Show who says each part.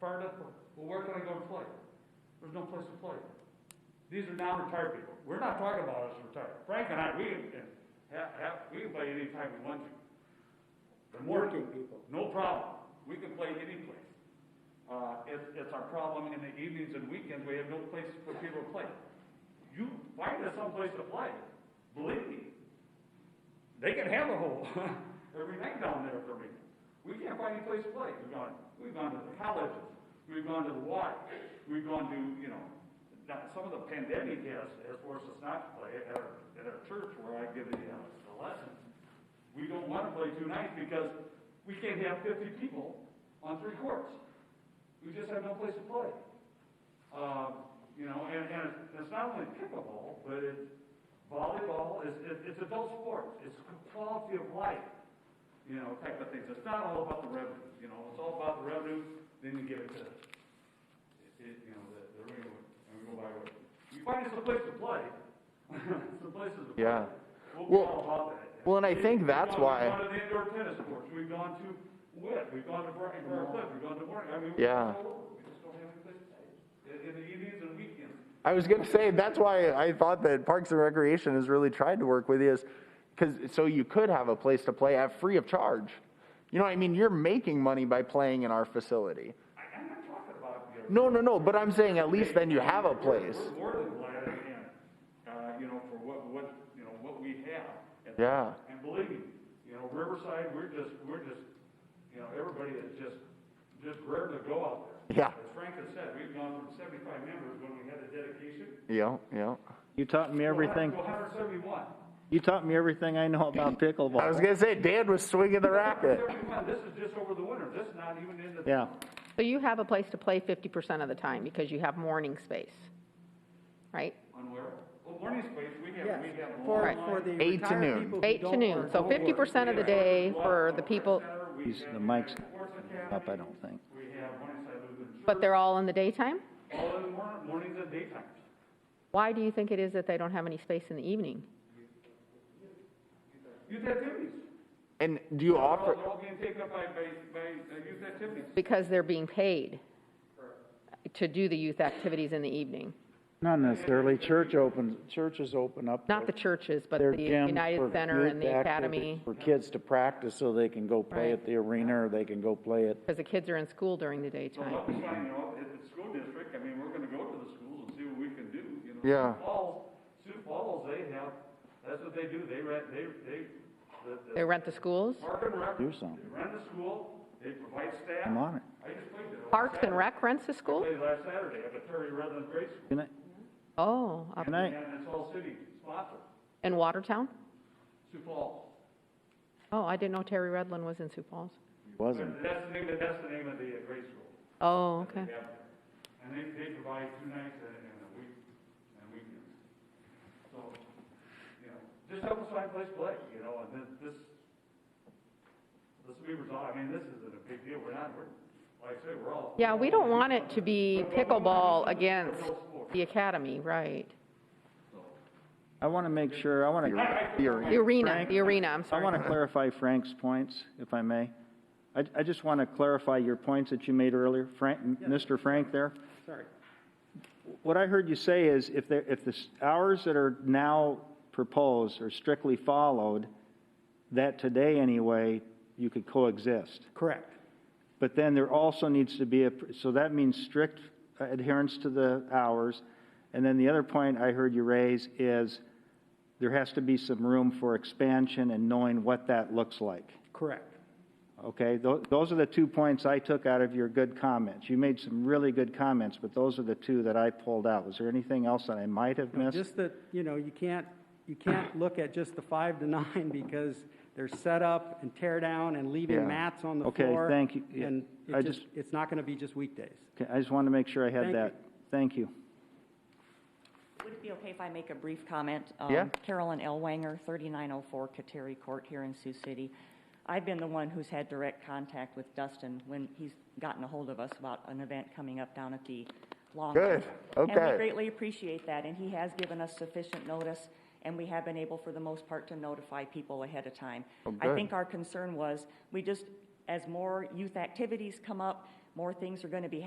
Speaker 1: fired up for, well, where can I go to play? There's no place to play. These are non-retired people. We're not talking about us retired. Frank and I, we can, have, have, we can play anytime we want to. The more-
Speaker 2: working people.
Speaker 1: no problem. We can play any place. Uh, it's, it's our problem in the evenings and weekends, we have no place for people to play. You find us someplace to play, believe me. They can have a hole every night down there for me. We can't find any place to play. We've gone, we've gone to the colleges, we've gone to the Y, we've gone to, you know, now, some of the pandemic has, has forced us not to play at our, at our church where I give the, uh, the lessons. We don't want to play two nights because we can't have fifty people on three courts. We just have no place to play. Um, you know, and, and it's- it's not only pickleball, but it's volleyball, it's, it's- it's adult sports, it's quality of life, you know, type of things. It's not all about the revenue, you know, it's all about the revenue, then you give it to, it, you know, the, the ring, and we go by what. You find us a place to play, some places to play.
Speaker 3: Yeah.
Speaker 1: We'll
Speaker 3: Well-
Speaker 1: all about that.
Speaker 3: Well, and I think that's
Speaker 1: We've gone-
Speaker 3: why.
Speaker 1: We've gone to the indoor tennis courts, we've gone to Witt, we've gone to Briar Briar Cliff, we've gone to Warren, I mean. we've
Speaker 3: Yeah.
Speaker 1: gone all over. We just don't have any place to play. In, in the evenings and weekends.
Speaker 3: I was gonna say that's why I thought that Parks and Recreation has really tried to work with you, is because so you could have a place to play at free of charge. You know, what I mean, you're making money by playing in our facility.
Speaker 1: I, I'm not talking about, you know.
Speaker 3: No, no, no. But I'm saying at least then you have a
Speaker 1: we're-
Speaker 3: place.
Speaker 1: We're more than glad, and, uh, you know, for what, what, you know, what we have. And-
Speaker 3: Yeah.
Speaker 1: And believe me, you know, Riverside, we're just, we're just, you know, everybody is just, just rare to go out there.
Speaker 3: Yeah.
Speaker 1: As Frank has said, we've gone from seventy-five members when we had a dedication.
Speaker 3: Yeah, yeah.
Speaker 2: You taught me everything.
Speaker 1: To hundred and seventy-one.
Speaker 2: You taught me everything I know about pickleball.
Speaker 3: I was gonna say Dan was swinging the racket.
Speaker 1: Everyone, This is just over the winter, this is not even in the.
Speaker 2: Yeah,
Speaker 4: So you have a place to play 50% of the time because you have morning space, right?
Speaker 1: On where, well, morning space, we have,
Speaker 5: Yes,
Speaker 1: we have. long
Speaker 5: for,
Speaker 1: lines.
Speaker 5: for the
Speaker 3: Eight to noon.
Speaker 5: retired people who
Speaker 4: Eight to
Speaker 5: don't
Speaker 4: noon,
Speaker 5: work.
Speaker 4: so 50% of the day for the people,
Speaker 1: We
Speaker 2: These-
Speaker 1: have
Speaker 2: the mic's
Speaker 1: Sports
Speaker 2: up, I
Speaker 1: Academy,
Speaker 2: don't think.
Speaker 1: we have Morningside Lutheran Church,
Speaker 4: but they're all in the daytime?
Speaker 1: all in the morning, mornings and daytimes.
Speaker 4: Why do you think it is that they don't have any space in the evening?
Speaker 1: Youth activities.
Speaker 3: And do you offer?
Speaker 1: They're all being taken up by, by, by uh, youth activities.
Speaker 4: Because they're being paid to do the youth activities in the evening.
Speaker 2: not necessarily. Church opens, churches open up.
Speaker 4: Not the
Speaker 2: their-
Speaker 4: churches, but
Speaker 2: their
Speaker 4: the
Speaker 2: gyms for
Speaker 4: United Center and
Speaker 2: youth
Speaker 4: the
Speaker 2: activities
Speaker 4: academy,
Speaker 2: For kids to practice so they can go play
Speaker 4: Right.
Speaker 2: at the arena or they can go play at,
Speaker 4: because the kids are in school during the
Speaker 1: So
Speaker 4: daytime.
Speaker 1: help us find, you know, at the school district, I mean, we're gonna go to the schools and see what we can do, you know.
Speaker 3: Yeah.
Speaker 1: Sioux Falls, Sioux Falls, they have, that's what they do, they rent, they, they, the, the
Speaker 4: They rent the schools?
Speaker 1: Park and Rec.
Speaker 2: Do something.
Speaker 1: They run the school, they provide staff.
Speaker 2: I'm on it.
Speaker 1: I just played there. last
Speaker 4: Parks and
Speaker 1: Saturday.
Speaker 4: Rec rents the
Speaker 1: I
Speaker 4: school?
Speaker 1: Played last Saturday at the Terry Redlands Grade School,
Speaker 2: Can I-
Speaker 4: Oh, up
Speaker 2: can I,
Speaker 1: and it's all city sponsored,
Speaker 4: in Watertown?
Speaker 1: Sioux Falls.
Speaker 4: Oh, I didn't know Terry Redlin was in Sioux Falls.
Speaker 2: wasn't.
Speaker 1: That's the name, that's the name of the uh, grade school.
Speaker 4: Oh,
Speaker 1: that they
Speaker 4: okay.
Speaker 1: have there. And they, they provide two nights and, and a week, and weekends. So, you know, just help us find a place to play, you know, and then this, this Weaver's, all- I mean, this isn't a big deal, we're not, we're, like I say, we're all.
Speaker 4: Yeah, we don't want it to be pickleball against the academy, right?
Speaker 2: I want to make sure, I want to
Speaker 4: The arena,
Speaker 2: Frank?
Speaker 4: the arena, I'm
Speaker 2: I want
Speaker 4: sorry.
Speaker 2: to clarify Frank's points, if I may. I, I just want to clarify your points that you made earlier, Frank, Mr. Frank there.
Speaker 5: Sorry.
Speaker 2: What I heard you say is if the, if the s- hours that are now proposed are strictly followed, that today anyway, you could coexist.
Speaker 5: Correct.
Speaker 2: But then there also needs to be a, so that means strict adherence to the hours. And then the other point I heard you raise is there has to be some room for expansion and knowing what that looks like.
Speaker 5: Correct.
Speaker 2: Okay, Tho- those are the two points I took out of your good comments. You made some really good comments, but those are the two that I pulled out. Was there anything else that I might have missed?
Speaker 5: Just that, you know, you can't, you can't look at just the five to nine because they're set up and tear down and
Speaker 2: Yeah.
Speaker 5: leaving mats on the
Speaker 2: Okay,
Speaker 5: floor.
Speaker 2: thank you. Yeah,
Speaker 5: And
Speaker 2: I
Speaker 5: it just,
Speaker 2: just-
Speaker 5: it's not going to be just weekdays.
Speaker 2: Okay, I just wanted to make sure I
Speaker 5: Thank
Speaker 2: had
Speaker 5: you.
Speaker 2: that. Thank you.
Speaker 6: Would it be okay if I make a brief comment? Um,
Speaker 3: Yeah.
Speaker 6: Carolyn Elwanger, 3904 Kateri Court here in Sioux City. I've been the one who's had direct contact with Dustin when he's gotten a hold of us about an event coming up down at the Long.
Speaker 3: Good.
Speaker 6: And
Speaker 3: Okay.
Speaker 6: we greatly appreciate that, and he has given us sufficient notice, and we have been able, for the most part, to notify people ahead of time.
Speaker 3: Oh,
Speaker 6: I
Speaker 3: good.
Speaker 6: think our concern was, we just, as more youth activities come up, more things are going to be